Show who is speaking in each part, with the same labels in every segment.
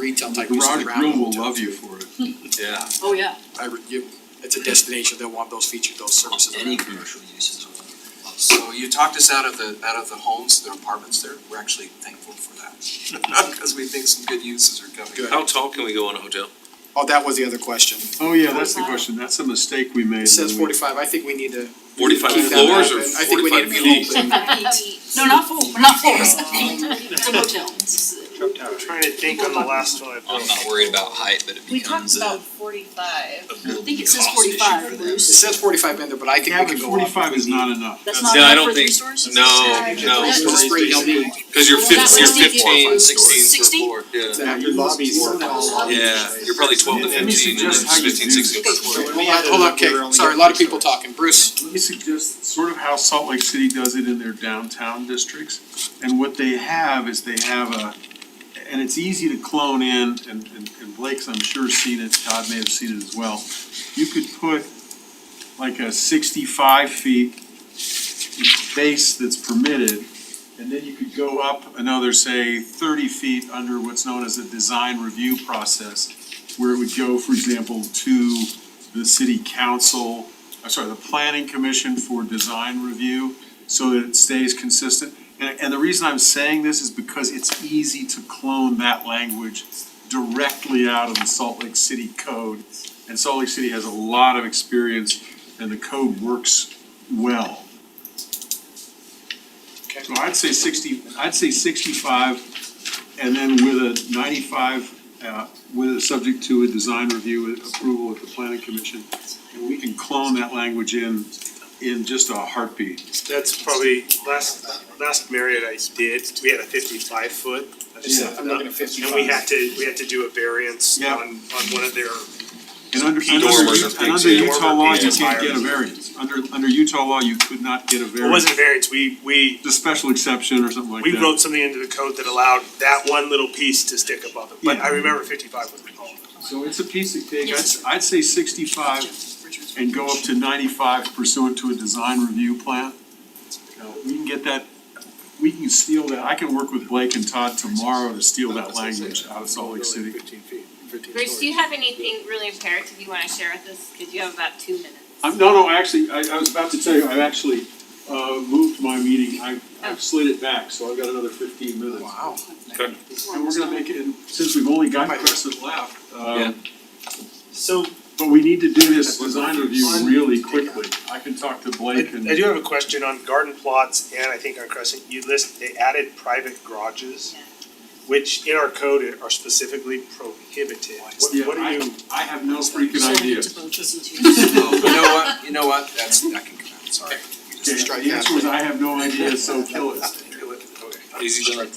Speaker 1: retail type. places
Speaker 2: Garage
Speaker 1: around
Speaker 2: Grill will
Speaker 1: hotel,
Speaker 2: love
Speaker 1: too.
Speaker 2: you for it.
Speaker 3: Yeah.
Speaker 4: Oh, yeah.
Speaker 1: I would give, it's a destination, they'll want those features, those services.
Speaker 3: Any commercial uses.
Speaker 5: So you talked us out of the, out of the homes, their apartments there, we're actually thankful for that. Cause we think some good uses are coming.
Speaker 1: Good.
Speaker 6: How tall can we go in a hotel?
Speaker 1: Oh, that was the other question.
Speaker 2: Oh, yeah, that's the question. That's a mistake we made.
Speaker 1: It says
Speaker 2: when we-
Speaker 1: forty-five, I think we need to.
Speaker 6: Forty-five
Speaker 1: Keep that
Speaker 6: floors
Speaker 1: up,
Speaker 6: or
Speaker 1: and I think we need
Speaker 6: forty-five
Speaker 1: to be
Speaker 6: feet?
Speaker 4: E No, not four, not floors. It's a hotel.
Speaker 7: I'm trying to think on the last one.
Speaker 3: I'm not worried about height, but it
Speaker 8: We talked
Speaker 3: becomes a.
Speaker 8: about forty-five.
Speaker 4: I think it says
Speaker 3: Cost issue for
Speaker 4: forty-five,
Speaker 3: them.
Speaker 1: It
Speaker 4: Bruce.
Speaker 1: says forty-five in there, but I think
Speaker 2: Yeah,
Speaker 1: we
Speaker 2: but
Speaker 1: can go up.
Speaker 2: forty-five is not enough.
Speaker 4: That's
Speaker 6: No,
Speaker 4: not
Speaker 6: I don't
Speaker 4: enough for three
Speaker 6: think-
Speaker 4: stores?
Speaker 6: No, no,
Speaker 1: It's just three LD.
Speaker 6: cause you're
Speaker 4: Well, that
Speaker 6: fif-
Speaker 4: would
Speaker 6: you're
Speaker 4: make it
Speaker 6: fifteen,
Speaker 5: four, five
Speaker 6: sixteen per
Speaker 4: 60?
Speaker 6: floor, yeah.
Speaker 1: Yeah, your lobby's.
Speaker 6: Yeah, you're probably twelve to
Speaker 2: Let me
Speaker 6: fifteen, and
Speaker 2: suggest
Speaker 6: then
Speaker 2: how you
Speaker 6: fifteen,
Speaker 2: do
Speaker 6: sixteen per floor.
Speaker 1: Hold on, hold on, okay, sorry, a lot of people talking, Bruce.
Speaker 2: Let me suggest sort of how Salt Lake City does it in their downtown districts. And what they have is they have a, and it's easy to clone in, and, and- and Blake's, I'm sure, seen it, Todd may have seen it as well. You could put like a sixty-five feet base that's permitted, and then you could go up another, say, thirty feet under what's known as a design review process, where it would go, for example, to the city council, I'm sorry, the planning commission for design review, so that it stays consistent. And, and the reason I'm saying this is because it's easy to clone that language directly out of the Salt Lake City code. And Salt Lake City has a lot of experience, and the code works well. So I'd say sixty, I'd say sixty-five, and then with a ninety-five, uh, with a subject to a design review and approval at the planning commission. And we can clone that language in, in just a heartbeat.
Speaker 7: That's probably last, last Marriott I did, we had a fifty-five foot. I just
Speaker 2: Yeah,
Speaker 7: looked
Speaker 1: I'm
Speaker 7: it up.
Speaker 1: looking at 55.
Speaker 7: And we had to, we had to do a variance
Speaker 2: Yeah.
Speaker 7: on, on one of their,
Speaker 2: And under, and under,
Speaker 6: Dormers are
Speaker 2: and
Speaker 6: big,
Speaker 2: under
Speaker 6: too.
Speaker 2: Utah law, you
Speaker 7: Dormer
Speaker 2: can't get a
Speaker 7: being
Speaker 2: variance. Under, under Utah law, you could not get a
Speaker 7: it
Speaker 2: variance.
Speaker 7: wasn't a variance, we, we,
Speaker 2: The special exception or something like that.
Speaker 7: we wrote something into the code that allowed that one little piece to stick above it, but
Speaker 2: Yeah.
Speaker 7: I remember fifty-five was the call.
Speaker 2: So it's a piece of cake. I'd, I'd say sixty-five and go up to ninety-five pursuant to a design review plan. Now, We can get that, we can steal that. I can work with Blake and Todd tomorrow to steal that language out of Salt Lake City.
Speaker 9: Bruce, do you have anything really imperative you wanna share with us, cause you have about two minutes.
Speaker 2: I'm, no, no, actually, I, I was about to tell you, I've actually, uh, moved my meeting. I, I've slid it back, so I've got another fifteen minutes.
Speaker 1: Wow.
Speaker 2: And we're gonna make it, and since we've only got Crescent left,
Speaker 6: Yeah.
Speaker 2: um,
Speaker 7: So
Speaker 2: but we need to do this design review really quickly. I can talk to
Speaker 7: I,
Speaker 2: Blake and.
Speaker 7: I do have a question on garden plots and I think on Crescent, you list, they added private garages, which in our code are specifically prohibited. What,
Speaker 2: Yeah,
Speaker 7: what do
Speaker 2: I-
Speaker 7: you?
Speaker 2: I have no freaking idea.
Speaker 5: Oh, you know what, you know what, that's, that can come out, sorry. We just-
Speaker 2: Okay,
Speaker 1: Strike
Speaker 2: the
Speaker 1: that.
Speaker 2: answer was I have no idea, so kill it.
Speaker 5: Okay.
Speaker 6: Easy done.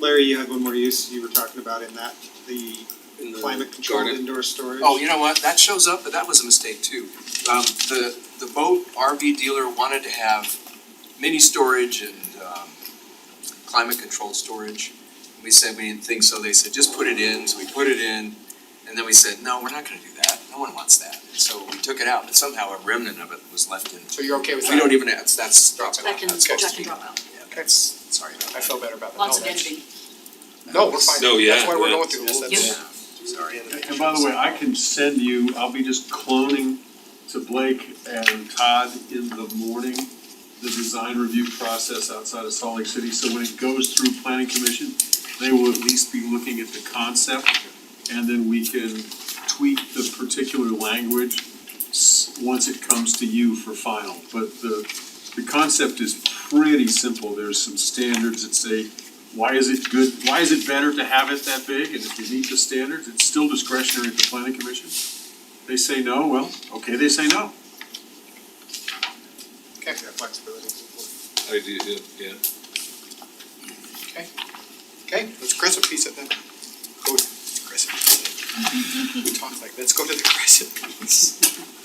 Speaker 10: Larry, you had one more use you were talking about in that, the
Speaker 6: In the
Speaker 10: climate controlled
Speaker 6: garden.
Speaker 10: indoor storage.
Speaker 5: Oh, you know what, that shows up, but that was a mistake too. Um, the, the boat RV dealer wanted to have mini storage and, um, climate controlled storage. We said we didn't think so, they said, just put it in, so we put it in, and then we said, no, we're not gonna do that, no one wants that. So we took it out, but somehow a remnant of it was left in.
Speaker 1: So you're okay with that?
Speaker 5: We don't even, that's, that's dropped out,
Speaker 4: That can,
Speaker 5: that's
Speaker 4: that
Speaker 5: supposed
Speaker 4: can
Speaker 5: to be.
Speaker 4: drop out.
Speaker 5: Yeah, that's, sorry about
Speaker 1: I
Speaker 5: that.
Speaker 1: feel better about that.
Speaker 4: Lots
Speaker 1: No,
Speaker 4: of
Speaker 1: that's-
Speaker 4: editing.
Speaker 1: No, we're fine.
Speaker 6: No, yeah,
Speaker 1: That's why we're
Speaker 6: yeah.
Speaker 1: going through this, that's.
Speaker 4: Yeah.
Speaker 5: Sorry.
Speaker 2: And by the way, I can send you, I'll be just cloning to Blake and Todd in the morning, the design review process outside of Salt Lake City, so when it goes through planning commission, they will at least be looking at the concept, and then we can tweak the particular language s- once it comes to you for final, but the, the concept is pretty simple, there's some standards that say why is it good, why is it better to have it that big, and if you meet the standards, it's still discretionary at the planning commission? They say no, well, okay, they say no.
Speaker 1: Okay, flexibility is important.
Speaker 6: I do, yeah, yeah.
Speaker 1: Okay, let's crescent piece it then. Go to the crescent piece. We talk like, let's go to the crescent piece.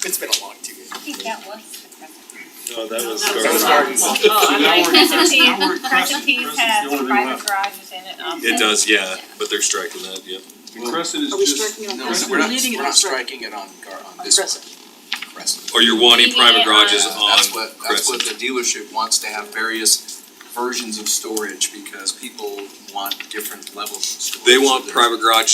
Speaker 1: It's been a long two years.
Speaker 8: I think that was.
Speaker 6: No, that was.
Speaker 4: That was
Speaker 6: garbage.
Speaker 4: gardens.
Speaker 8: Oh,
Speaker 2: So
Speaker 8: I'm
Speaker 2: now
Speaker 8: like,
Speaker 2: we're in
Speaker 8: Crescent
Speaker 2: Crescent, now we're
Speaker 8: Peak,
Speaker 2: in
Speaker 8: Crescent
Speaker 2: Crescent,
Speaker 8: Peak
Speaker 2: Crescent's the
Speaker 8: has
Speaker 2: only thing
Speaker 8: private
Speaker 2: left.
Speaker 8: garages in it. also.
Speaker 6: It does, yeah, but they're striking that, yeah.
Speaker 2: And Crescent is
Speaker 4: Are we
Speaker 2: just,
Speaker 4: striking it on
Speaker 5: No,
Speaker 4: Crescent?
Speaker 5: we're not,
Speaker 4: Leaving it
Speaker 5: we're
Speaker 4: on
Speaker 5: not
Speaker 4: Crescent.
Speaker 5: striking it on Gar, on this
Speaker 4: Crescent.
Speaker 5: one. Crescent.
Speaker 6: Or you're
Speaker 9: Leaving
Speaker 6: wanting
Speaker 9: it
Speaker 6: private garages
Speaker 9: on-
Speaker 5: Yeah,
Speaker 6: on
Speaker 5: That's what, that's what the
Speaker 6: Crescent.
Speaker 5: dealership wants to have various versions of storage because people want different levels of storage.
Speaker 6: They
Speaker 5: So
Speaker 6: want
Speaker 5: there's-
Speaker 6: private garage